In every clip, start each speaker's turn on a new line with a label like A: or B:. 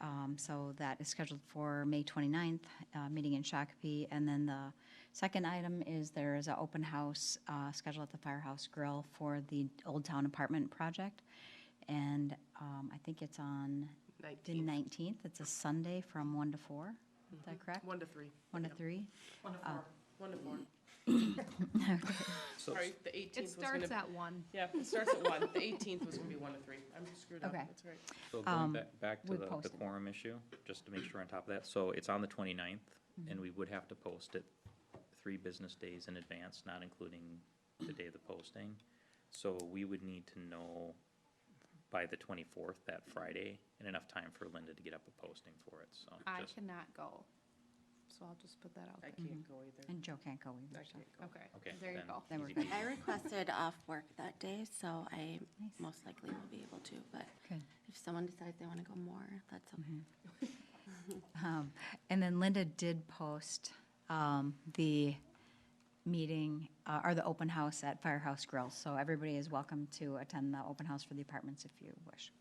A: Um, So that is scheduled for May 29th, uh, meeting in Shakopee. And then the second item is there is an open house uh, scheduled at the Firehouse Grill for the Old Town Apartment Project. And um, I think it's on the
B: 19,
A: 19th. It's a Sunday from 1 to 4. Is that correct?
B: 1 to 3.
A: 1 to 3?
B: 1
C: Oh.
B: to 4. 1 to 4.
D: So,
B: Sorry, the 18th
C: It
B: was going
C: starts
B: to,
C: at one.
B: yeah, it starts at 1. The 18th was going to be 1 to 3. I'm screwed up,
A: Okay.
B: that's all right.
D: so
A: um,
D: going back, back to
A: we
D: the- the
A: posted.
D: quorum issue, just to make sure we're on top of that, so it's on the 29th,
A: Mm-hmm.
D: and we would have to post it three business days in advance, not including the day of the posting. So we would need to know by the twenty-fourth, that Friday, and enough time for Linda to get up a posting for it, so.
C: I
D: just-
C: cannot go, so I'll just put that out
B: I
C: there.
B: can't go either.
A: And Joe can't go
B: I
A: either. so-
B: can't go.
D: Okay.
C: Okay, there you
D: then
C: go.
A: Then we're
D: easy
A: good.
D: peasy.
E: I requested off work that day, so I
A: Nice.
E: most likely will be able to, but
A: Good.
E: if someone decides they want to go more, that's okay.
A: Um, And then Linda did post um, the meeting, uh, or the open house at Firehouse Grill. So everybody is welcome to attend the open house for the apartments if you wish.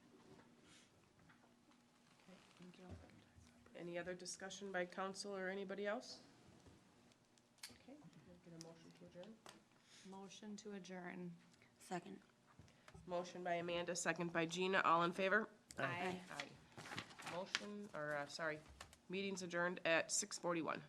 B: Any other discussion by council or anybody else? Okay, can I get a motion to adjourn?
C: Motion to adjourn.
E: Second.
B: Motion by Amanda, second by Gina, all in favor?
C: Aye.
B: Aye. Motion, or, uh, sorry, meeting's adjourned at 6:41.